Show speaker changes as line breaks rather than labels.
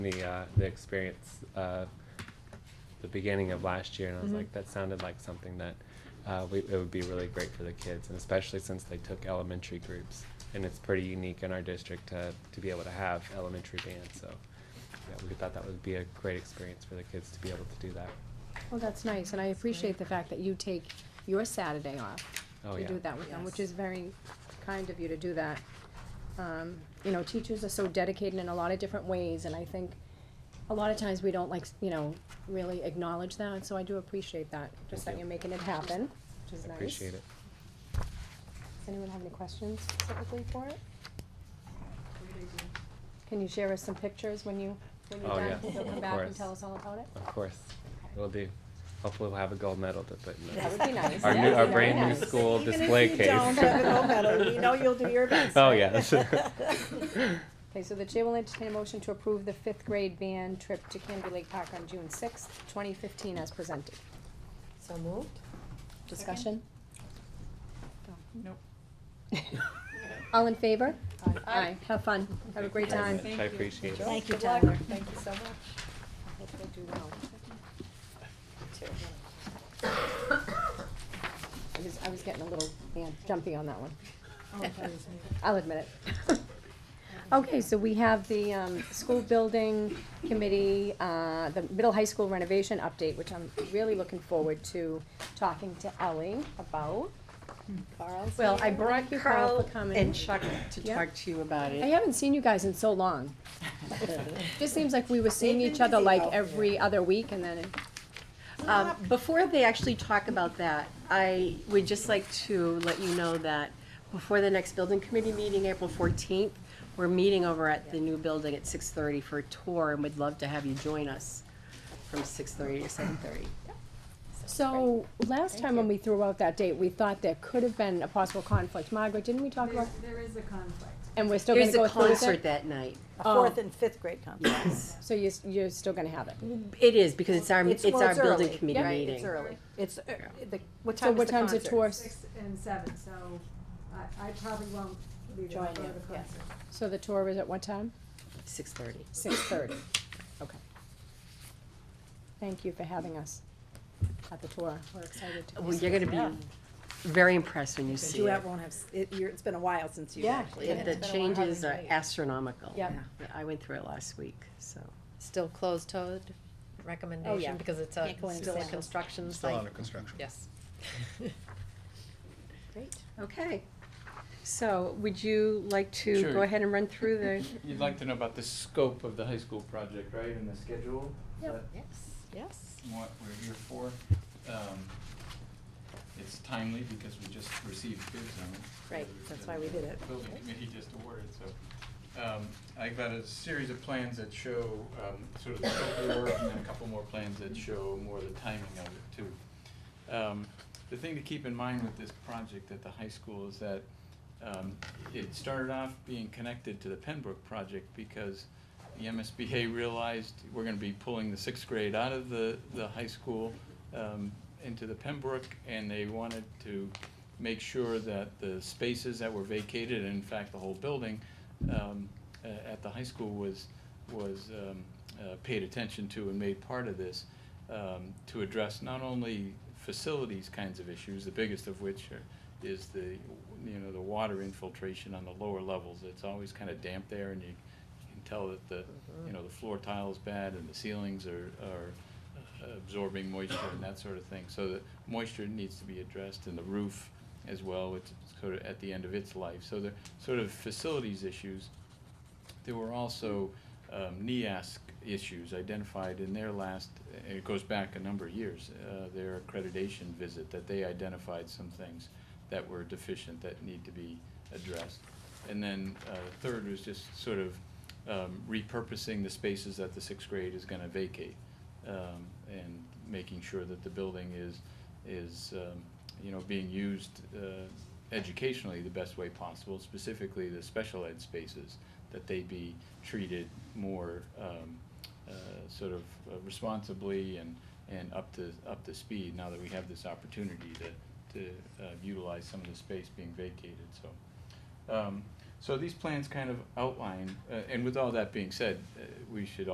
the uh, the experience uh, the beginning of last year, and I was
Mhm.
like, that sounded like something that uh, we, it would be really great for the kids, and especially since they took elementary groups, and it's pretty unique in our district to to be able to have elementary band. So yeah, we thought that would be a great experience for the kids to be able to do that.
Well, that's nice, and I appreciate the fact that you take your Saturday off
Oh
to
yeah,
do that with them, which
Yes.
is very kind of you to do that. Um, you know, teachers are so dedicated in a lot of different ways, and I think a lot of times we don't like, you know, really acknowledge that, so I do appreciate that, just that
Thank you.
you're making it happen, which is
I
nice.
appreciate it.
Does anyone have any questions specifically for it? Can you share us some pictures when you, when you're
Oh,
done?
yes,
You'll come
of
back and
course.
tell us all about it?
Of course, we'll do. Hopefully, we'll have a gold medal to put in.
That
the
would be nice.
Our
That
new,
would
our
be very
brand new
nice.
school
Even if
display
you
case.
don't have a gold medal, we know you'll do your best,
Oh
right?
yes.
Okay, so the chair will entertain a motion to approve the fifth grade band trip to Canby Lake Park on June sixth, twenty fifteen as presented.
So moved?
Discussion?
Nope.
All in favor? Aye. Have fun. Have a great
Thank you
time.
very much. I appreciate it.
Thank you,
Good luck.
Tyler. Thank you so much.
Hope they do well. I was, I was getting a little, yeah, jumpy on that one. I'll admit it. Okay, so we have the, um, school building committee, uh, the middle high school renovation update, which I'm really looking forward to talking to Ellie about.
Carl's
Well, I
here.
brought you Carl
Carl
for coming.
and Chuck to
Yeah.
talk to you about
I
it.
haven't seen you guys in so long. Just seems like we were seeing
They've been
each other
busy
like
out
every other week and then,
Um, Before they actually talk about that, I would just like to let you know that before the next building committee meeting, April fourteenth, we're meeting over at the new building at six thirty for a tour and would love to have you join us from six thirty to seven thirty.
so last time when we threw out that date, we thought there could have been a possible conflict. Margaret, didn't we talk
There,
about,
there is a conflict.
and we're still gonna
There's
go
a
through with
concert
it?
that night.
A
Oh.
fourth and fifth grade competition.
So you're, s- you're still gonna have it?
It is, because it's our, it's
well,
our building
early,
committee
right?
meeting.
It's early. It's, uh, the, what
So
time
what
is the
time's the
concert?
tour?
Six and seven, so I, I probably won't be there
Join
for the
you, yes.
concert.
So the tour is at what time?
Six thirty.
Six thirty, okay. Thank you for having us at the tour. We're excited to.
Well, you're gonna be very impressed when you see it.
won't have, s- it, you're, it's been a while since you
Yeah.
actually.
The- The changes are astronomical.
Yep.
I went through it last week, so.
Still closed-toed
Oh,
recommendation, because it's a,
go in
still a
now.
construction
Still
site,
under construction.
yes.
Great.
Okay. So would you like to go
Sure.
ahead and run through the,
You'd like to know about the scope of the high school project, right, and the schedule? Is
Yep.
that-
Yes, yes.
what we're here for. Um, it's timely because we just received bid zone.
Right, that's why we did it.
Building committee just awarded, so, um, I've got a series of plans that show, um, sort of the scope of the work and then a couple more plans that show more the timing of it too. Um, the thing to keep in mind with this project at the high school is that, um, it started off being connected to the Pembroke project because the MSBA realized we're gonna be pulling the sixth grade out of the, the high school, um, into the Pembroke, and they wanted to make sure that the spaces that were vacated, and in fact, the whole building, um, a- at the high school was, was, um, uh, paid attention to and made part of this, um, to address not only facilities kinds of issues, the biggest of which are, is the, you know, the water infiltration on the lower levels. It's always kinda damp there, and you, you can tell that the, you know, the floor tile's bad and the ceilings are, are absorbing moisture and that sort of thing. So the moisture needs to be addressed and the roof as well, it's sort of at the end of its life. So they're sort of facilities issues. There were also um, NEASC issues identified in their last, and it goes back a number of years, uh, their accreditation visit, that they identified some things that were deficient that need to be addressed. And then uh, third was just sort of um, repurposing the spaces that the sixth grade is going to vacate um, and making sure that the building is, is, um, you know, being used uh, educationally the best way possible, specifically the special ed spaces, that they be treated more um, uh, sort of uh, responsibly and, and up to, up to speed now that we have this opportunity to, to uh, utilize some of the space being vacated, so. Um, So these plans kind of outline, uh, and with all that being said, uh, we should